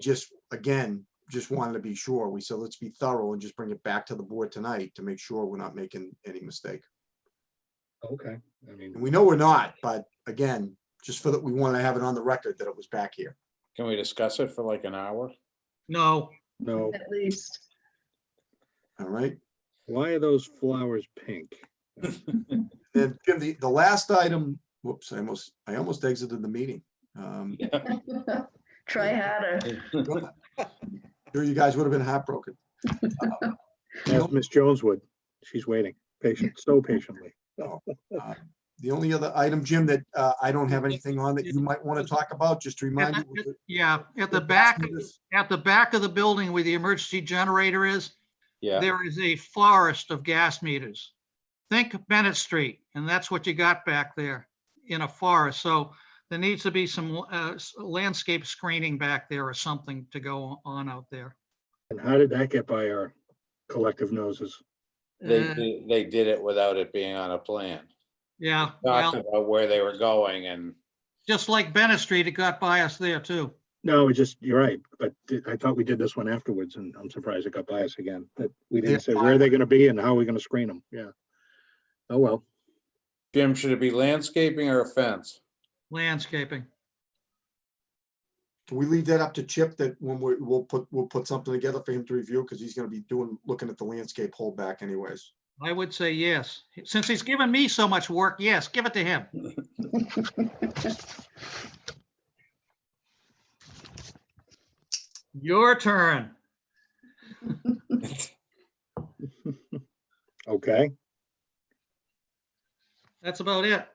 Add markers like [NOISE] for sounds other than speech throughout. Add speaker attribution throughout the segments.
Speaker 1: just, again, just wanted to be sure. We said, let's be thorough and just bring it back to the board tonight to make sure we're not making any mistake.
Speaker 2: Okay, I mean,
Speaker 1: And we know we're not, but again, just for that, we want to have it on the record that it was back here.
Speaker 3: Can we discuss it for like an hour?
Speaker 4: No,
Speaker 2: no,
Speaker 5: At least.
Speaker 1: All right.
Speaker 2: why are those flowers pink?
Speaker 1: Then Jim, the, the last item, whoops, I almost, I almost exited the meeting. Um,
Speaker 5: [LAUGHS] Try harder.
Speaker 1: Sure, you guys would have been heartbroken.
Speaker 2: Ask Miss Jones would, she's waiting, patient, so patiently.
Speaker 1: The only other item, Jim, that uh, I don't have anything on that you might want to talk about, just to remind you. was the-
Speaker 4: yeah, at the back, of-
Speaker 1: was-
Speaker 4: at the back of the building where the emergency generator is,
Speaker 3: [LAUGHS] Yeah,
Speaker 4: there is a forest of gas meters. Think Bennett Street, and that's what you got back there in a forest. So there needs to be some uh, s- landscape screening back there or something to go on out there.
Speaker 2: And how did that get by our collective noses?
Speaker 3: they,
Speaker 4: Uh,
Speaker 3: di- they did it without it being on a plan.
Speaker 4: Yeah,
Speaker 3: Talked
Speaker 4: well,
Speaker 3: about where they were going and
Speaker 4: just like Bennett Street, it got by us there too.
Speaker 2: No, it just, you're right, but th- I thought we did this one afterwards and I'm surprised it got by us again, that we
Speaker 1: Yeah.
Speaker 2: didn't say where are they gonna be and how are we gonna screen them, yeah. Oh, well,
Speaker 3: Jim, should it be landscaping or a fence?
Speaker 4: Landscaping.
Speaker 1: Can we leave that up to Chip that when we, we'll put, we'll put something together for him to review, because he's gonna be doing, looking at the landscape holdback anyways.
Speaker 4: I would say yes. Since he's given me so much work, yes, give it to him. Your turn.
Speaker 2: okay,
Speaker 4: That's about it.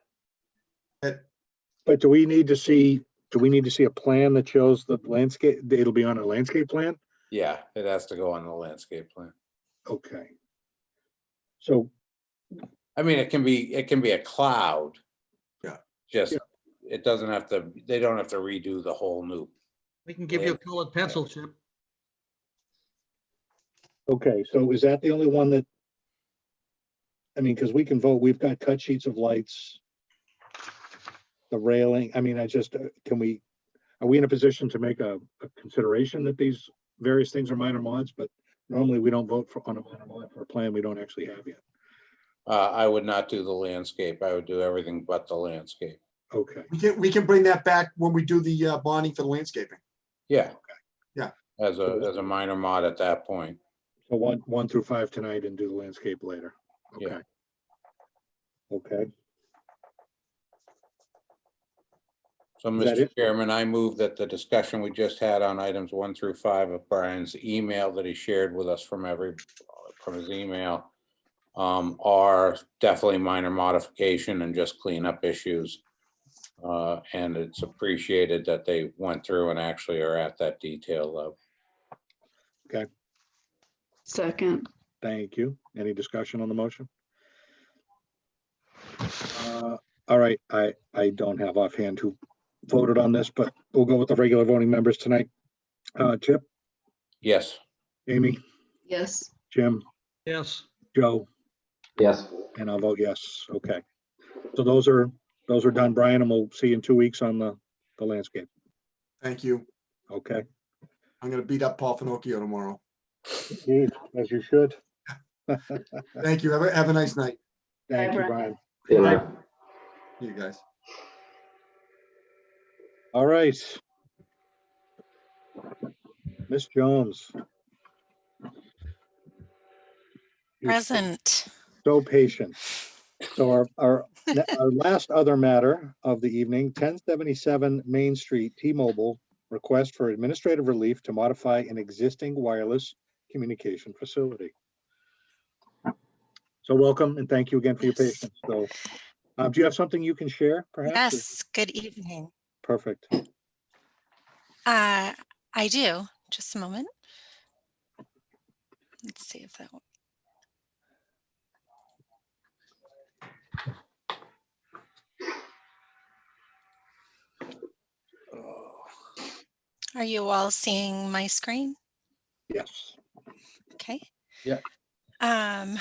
Speaker 2: but do we need to see, do we need to see a plan that shows the landscape, it'll be on a landscape plan?
Speaker 3: Yeah, it has to go on the landscape plan.
Speaker 2: Okay. So
Speaker 3: I mean, it can be, it can be a cloud.
Speaker 1: Yeah.
Speaker 3: Just, it doesn't have to, they don't have to redo the whole new.
Speaker 4: We can give you a colored pencil chip.
Speaker 2: Okay, so is that the only one that? I mean, because we can vote, we've got cut sheets of lights. The railing, I mean, I just, uh, can we, are we in a position to make a, a consideration that these various things are minor mods, but normally we don't vote for, on a minor mod for a plan we don't actually have yet.
Speaker 3: Uh, I would not do the landscape. I would do everything but the landscape.
Speaker 2: Okay,
Speaker 1: We can, we can bring that back when we do the uh, bonding for the landscaping.
Speaker 3: Yeah.
Speaker 1: Yeah.
Speaker 3: As a, as a minor mod at that point.
Speaker 2: so one, one through five tonight and do the landscape later.
Speaker 3: Yeah.
Speaker 2: Okay. Okay,
Speaker 3: So,
Speaker 2: Is that
Speaker 3: Mr.
Speaker 2: it?
Speaker 3: Chairman, I move that the discussion we just had on items one through five of Brian's email that he shared with us from every, from his email um, are definitely minor modification and just cleanup issues. Uh, And it's appreciated that they went through and actually are at that detail level.
Speaker 5: Second,
Speaker 2: thank you. Any discussion on the motion? Uh, All right, I, I don't have offhand who voted on this, but we'll go with the regular voting members tonight. Uh, Chip,
Speaker 3: Yes,
Speaker 2: Amy,
Speaker 5: yes,
Speaker 2: Jim,
Speaker 4: Yes,
Speaker 2: Joe,
Speaker 6: Yes,
Speaker 2: and I'll vote yes. Okay. So those are, those are done, Brian, and we'll see you in two weeks on the, the landscape.
Speaker 1: Thank you.
Speaker 2: Okay,
Speaker 1: I'm gonna beat up Paul Finocchio tomorrow.
Speaker 2: as you should.
Speaker 1: Thank you. Have a, have a nice night,
Speaker 2: Thank you,
Speaker 5: Brian.
Speaker 2: Brian.
Speaker 6: good night.
Speaker 1: you guys.
Speaker 2: All right. Miss Jones. You're
Speaker 7: Present.
Speaker 2: So patient. So our,
Speaker 7: [LAUGHS]
Speaker 2: our, ne- our last other matter of the evening, ten seventy-seven Main Street, T-Mobile, request for administrative relief to modify an existing wireless communication facility. So welcome and thank you again for your
Speaker 7: Yes.
Speaker 2: patience. So, uh, do you have something you can share perhaps?
Speaker 7: Yes, good evening.
Speaker 2: Perfect.
Speaker 7: Uh, I do. Just a moment. Let's see if that. wo- Are you all seeing my screen?
Speaker 2: Yes.
Speaker 7: Okay.
Speaker 3: Yeah.
Speaker 7: Um.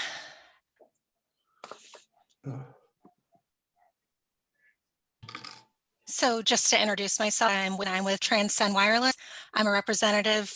Speaker 7: So just to introduce myself, I'm, I'm with Transcend Wireless. I'm a representative